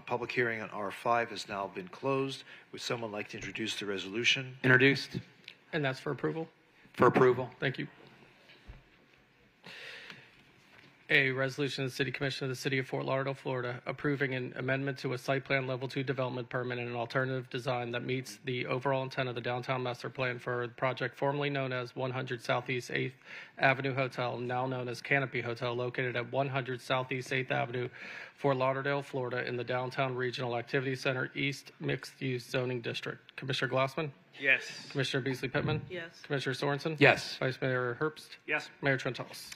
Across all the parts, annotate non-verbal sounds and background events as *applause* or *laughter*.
public hearing on R5 has now been closed. Would someone like to introduce the resolution? Introduced And that's for approval. for approval. Thank you. A resolution of the City Commission of the City of Fort Lauderdale, Florida, approving an amendment to a site plan level two development permit and an alternative design that meets the overall intent of the downtown master plan for the project formerly known as 100 Southeast 8th Avenue Hotel, now known as Canopy Hotel, located at 100 Southeast 8th Avenue, Fort Lauderdale, Florida, in the Downtown Regional Activity Center East Mixed Use Zoning District. Commissioner Glassman? Yes. Commissioner Beasley Pittman? Yes. Commissioner Sorensen? Yes. Vice Mayor Herbst? Yes. Mayor Trentalis.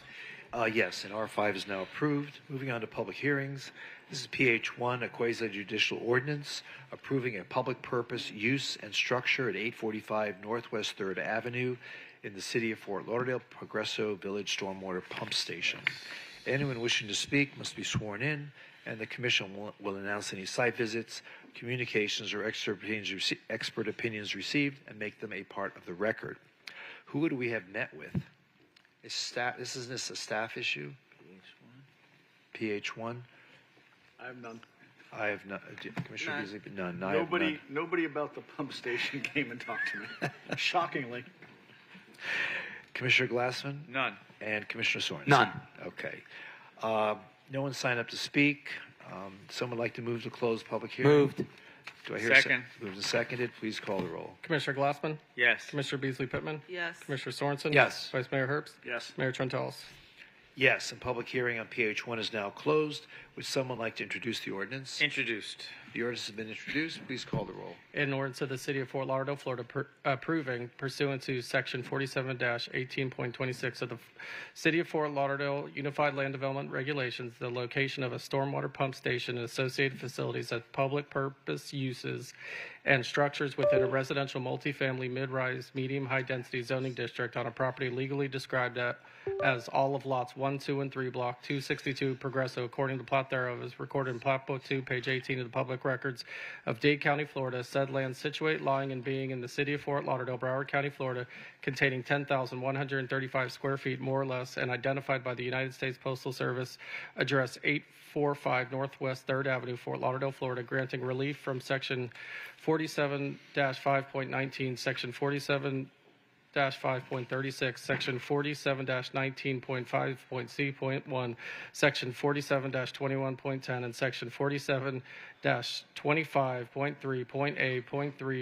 Uh, yes, and R5 is now approved. Moving on to public hearings. This is PH1, a quasi judicial ordinance approving a public purpose use and structure at 845 Northwest 3rd Avenue in the city of Fort Lauderdale, Progresso Village Stormwater Pump Station. Anyone wishing to speak must be sworn in, and the commission will, will announce any site visits, communications, or expert opinions, rece- expert opinions received and make them a part of the record. Who would we have met with? Is staff, this isn't this a staff issue? PH one? I have none. I have not, uh, Commissioner None. Beasley, none, I have Nobody, none. nobody about the pump station *laughs* came and talked to me. *laughs* Shockingly. Commissioner Glassman? None. And Commissioner Sorensen? None. Okay. Uh, no one signed up to speak. Um, someone like to move to close public hearing? Moved. Do I hear a sec- Second. Moved and seconded, please call the roll. Commissioner Glassman? Yes. Commissioner Beasley Pittman? Yes. Commissioner Sorensen? Yes. Vice Mayor Herbst? Yes. Mayor Trentalis. Yes, and public hearing on PH one is now closed. Would someone like to introduce the ordinance? Introduced. The ordinance has been introduced, please call the roll. In ordinance of the City of Fort Lauderdale, Florida, per- approving pursuant to Section 47-18.26 of the F- City of Fort Lauderdale Unified Land Development Regulations, the location of a stormwater pump station and associated facilities as public purpose uses and structures within a residential multifamily mid-rise, medium-high-density zoning district on a property legally described at- as all of lots 1, 2, and 3, Block 262, Progresso, according to plat thereof, is recorded in Plat Book 2, page 18 of the Public Records of Dade County, Florida, said land situate, lying, and being in the city of Fort Lauderdale, Broward County, Florida, containing 10,135 square feet, more or less, and identified by the United States Postal Service, address 845 Northwest 3rd Avenue, Fort Lauderdale, Florida, granting relief from Section 47-5.19, Section 47 5.36, Section 47-19.5.c.1, Section 47-21.10, and Section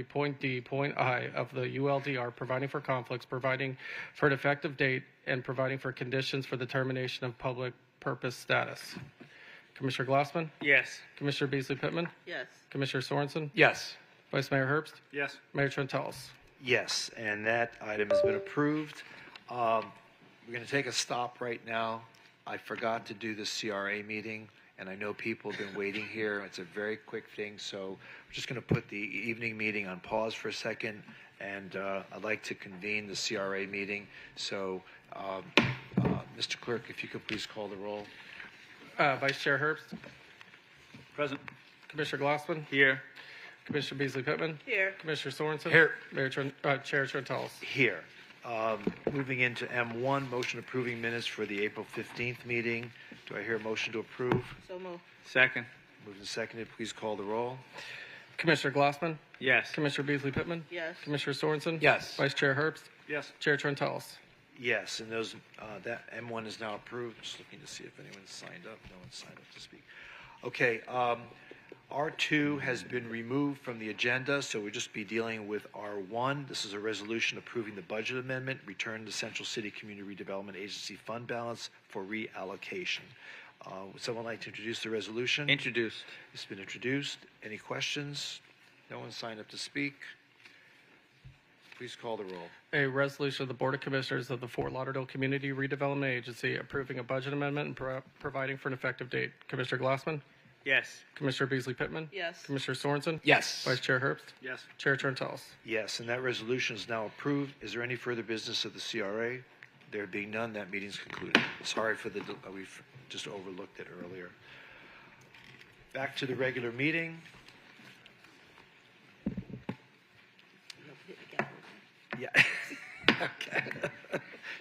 47-25.3.a.3.d.i of the ULDR, providing for conflicts, providing for an effective date, and providing for conditions for the termination of public purpose status. Commissioner Glassman? Yes. Commissioner Beasley Pittman? Yes. Commissioner Sorensen? Yes. Vice Mayor Herbst? Yes. Mayor Trentalis? Yes, and that item has been approved. Um, We're going to take a stop right now. I forgot to do the CRA meeting, and I know people have been waiting here. It's a very quick thing, so I'm just going to put the evening meeting on pause for a second, and uh, I'd like to convene the CRA meeting. So, um, uh, Mr. Clerk, if you could please call the roll. Uh, Vice Chair Herbst? Present. Commissioner Glassman? Here. Commissioner Beasley Pittman? Here. Commissioner Sorensen? Here. Mayor Tren, uh, Chair Trentalis. here. Um, Moving into M1, motion approving minutes for the April 15th meeting. Do I hear a motion to approve? So moved. Second. Moved and seconded, please call the roll. Commissioner Glassman? Yes. Commissioner Beasley Pittman? Yes. Commissioner Sorensen? Yes. Vice Chair Herbst? Yes. Chair Trentalis. Yes, and those, uh, that M1 is now approved. Just looking to see if anyone's signed up. No one's signed up to speak. Okay, um, R2 has been removed from the agenda, so we'll just be dealing with R1. This is a resolution approving the budget amendment, return to Central City Community Redevelopment Agency fund balance for reallocation. Uh, Would someone like to introduce the resolution? Introduced. It's been introduced. Any questions? No one signed up to speak. Please call the roll. A resolution of the Board of Commissioners of the Fort Lauderdale Community Redevelopment Agency approving a budget amendment and pro- providing for an effective date. Commissioner Glassman? Yes. Commissioner Beasley Pittman? Yes. Commissioner Sorensen? Yes. Vice Chair Herbst? Yes. Chair Trentalis. Yes, and that resolution is now approved. Is there any further business of the CRA? There being none, that meeting's concluded. Sorry for the, del- uh, we f- just overlooked it earlier. Back to the regular meeting. Yeah. *laughs* Okay.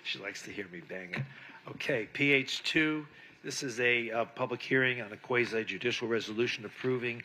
She likes to hear me bang it. Okay, PH2, this is a uh, public hearing on a quasi judicial resolution approving